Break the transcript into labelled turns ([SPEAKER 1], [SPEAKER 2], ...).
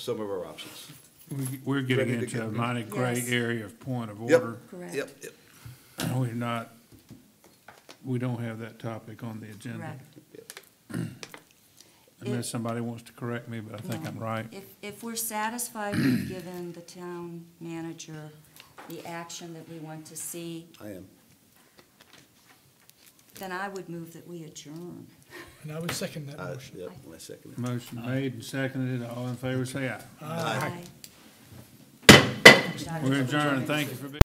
[SPEAKER 1] some of our options.
[SPEAKER 2] We- We're getting
[SPEAKER 1] Ready to
[SPEAKER 2] into
[SPEAKER 1] get-
[SPEAKER 2] a mighty gray
[SPEAKER 3] Yes.
[SPEAKER 2] area of point of
[SPEAKER 1] Yep,
[SPEAKER 2] order.
[SPEAKER 3] Correct.
[SPEAKER 1] Yep, yep,
[SPEAKER 2] We're not, we don't have that topic on the agenda.
[SPEAKER 3] Correct.
[SPEAKER 1] yep.
[SPEAKER 2] Unless somebody wants to correct me, but I think I'm right.
[SPEAKER 3] If, if we're satisfied with giving the town manager the action that we want to see,
[SPEAKER 1] I am.
[SPEAKER 3] then I would move that we adjourn.
[SPEAKER 4] And I would second that
[SPEAKER 1] I,
[SPEAKER 4] motion.
[SPEAKER 1] Uh, yep, and I second it.
[SPEAKER 2] Motion made and seconded. All in favor, say aye.
[SPEAKER 3] Aye.
[SPEAKER 2] We're adjourned. Thank you for being.